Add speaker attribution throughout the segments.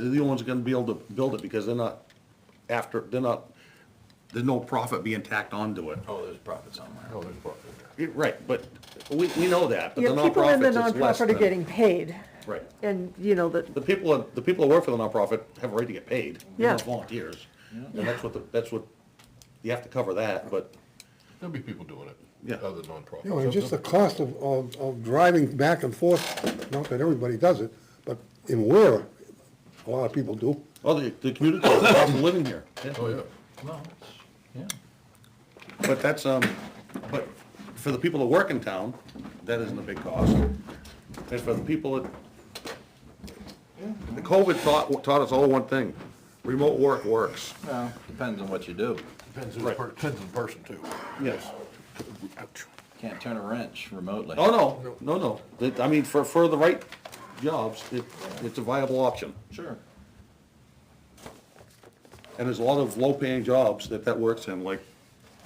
Speaker 1: the only ones that are gonna be able to build it because they're not after, they're not, there's no profit being tacked onto it.
Speaker 2: Oh, there's profit somewhere. Oh, there's profit.
Speaker 1: Yeah, Right, but we, we know that, but the
Speaker 3: Yeah, people in the
Speaker 1: nonprofits is less
Speaker 3: nonprofit are
Speaker 1: than.
Speaker 3: getting paid,
Speaker 1: Right.
Speaker 3: and, you know, that,
Speaker 1: The people, that- the people that work for the nonprofit have a right to get paid. They're not
Speaker 3: Yeah.
Speaker 1: Volunteers. And that's what, the- that's what, you have to cover that, but
Speaker 4: There'll be people doing it.
Speaker 1: Yeah.
Speaker 4: Other
Speaker 5: You know, and
Speaker 4: nonprofits.
Speaker 5: just the cost of, of, of driving back and forth, not that everybody does it, but in Ware, a lot of people do.
Speaker 1: Oh, the, the community, the cost of living here,
Speaker 4: Oh, yeah.
Speaker 2: Well, it's- yeah.
Speaker 1: but that's, um, but for the people that work in town, that isn't a big cost. And for the people that, the COVID taught, taught us all one thing, remote work works.
Speaker 2: Well, depends on what you do.
Speaker 4: Depends on the per, depends on the person too.
Speaker 1: Yes.
Speaker 2: Can't turn a wrench remotely.
Speaker 1: Oh, no, no, no, That- I mean, for, for the right jobs, it, it's a viable option.
Speaker 2: Sure.
Speaker 1: And there's a lot of low-paying jobs that that works in, like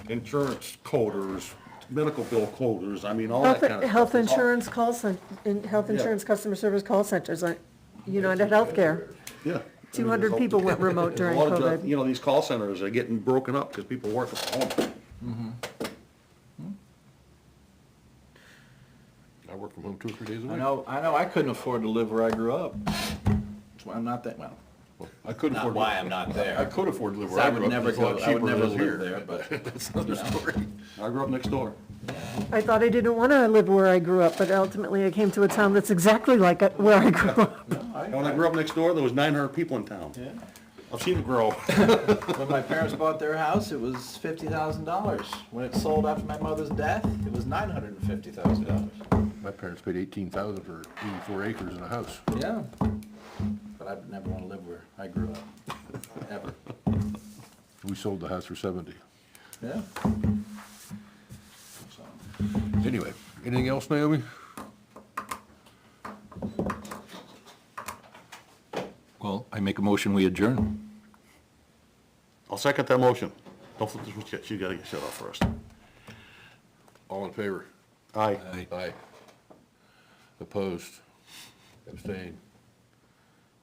Speaker 1: insurance coders, medical bill coders, I mean, all that
Speaker 3: health,
Speaker 1: kind of stuff. It's
Speaker 3: health
Speaker 1: all-
Speaker 3: insurance call cen, in, health
Speaker 1: Yeah.
Speaker 3: insurance customer service call centers, like United Healthcare.
Speaker 1: Yeah. I mean,
Speaker 3: 200
Speaker 1: there's a-
Speaker 3: people went remote
Speaker 1: there's a
Speaker 3: during
Speaker 1: lot of job-
Speaker 3: COVID.
Speaker 1: You know, these call centers are getting broken up because people work from home.
Speaker 4: I work from home two or three days a
Speaker 2: I
Speaker 4: week.
Speaker 2: know, I know I couldn't afford to live where I grew up. That's why I'm not that, well,
Speaker 4: I couldn't
Speaker 2: not
Speaker 4: afford.
Speaker 2: why I'm not
Speaker 4: I
Speaker 2: there.
Speaker 4: could afford to live where
Speaker 2: I
Speaker 4: I
Speaker 2: would
Speaker 4: grew up.
Speaker 2: never
Speaker 4: It's a lot
Speaker 2: go- I would
Speaker 4: cheaper
Speaker 2: never
Speaker 4: than
Speaker 2: live
Speaker 4: here,
Speaker 2: there,
Speaker 4: but
Speaker 2: but-
Speaker 4: That's another story.
Speaker 1: I grew up next door.
Speaker 3: I thought I didn't wanna live where I grew up, but ultimately I came to a town that's exactly like it- where I grew up.
Speaker 2: No, I-
Speaker 1: And when I grew up next door, there was nine hundred people in town.
Speaker 2: Yeah.
Speaker 1: I've seen it grow.
Speaker 2: When my parents bought their house, it was fifty thousand dollars. When it sold after my mother's death, it was nine hundred and fifty thousand dollars.
Speaker 4: My parents paid eighteen thousand for eighty-four acres and a house.
Speaker 2: Yeah. But I would never want to live where I grew up, ever.
Speaker 4: We sold the house for seventy.
Speaker 2: Yeah. So,
Speaker 4: Anyway, anything else, Naomi?
Speaker 6: Well, I make a motion, we adjourn.
Speaker 1: I'll second that motion. Don't flip this one yet, you gotta get shut off first.
Speaker 4: All in favor?
Speaker 1: Aye.
Speaker 4: Aye. Opposed? Abstained?